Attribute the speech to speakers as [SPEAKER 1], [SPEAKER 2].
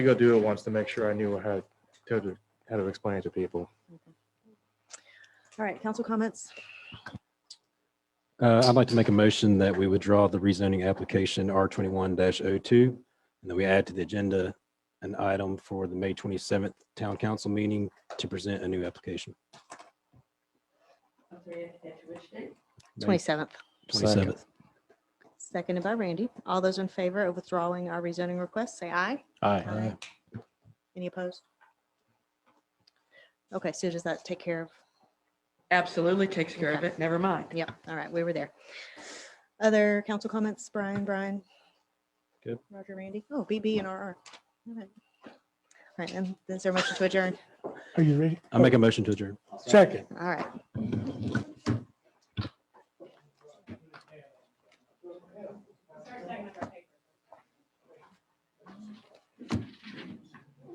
[SPEAKER 1] to go do it once to make sure I knew how to, how to explain it to people.
[SPEAKER 2] All right, council comments?
[SPEAKER 3] Uh, I'd like to make a motion that we withdraw the rezoning application R twenty-one 2 and that we add to the agenda an item for the May twenty-seventh town council meeting to present a new application. May
[SPEAKER 2] 27th,
[SPEAKER 3] 27th.
[SPEAKER 2] seconded by Randy. All those in favor of withdrawing our rezoning request, say aye.
[SPEAKER 1] Aye.
[SPEAKER 2] Any opposed? Okay, so does that take care of,
[SPEAKER 4] Absolutely takes care of it. Never mind.
[SPEAKER 2] yeah, all right, we were there. Other council comments, Brian, Brian?
[SPEAKER 3] Good.
[SPEAKER 2] Roger, Randy? Oh, BB and RR. All right. All right, and is there a motion to adjourn?
[SPEAKER 5] Are you ready?
[SPEAKER 3] I make a motion to adjourn.
[SPEAKER 5] Second.
[SPEAKER 2] All right,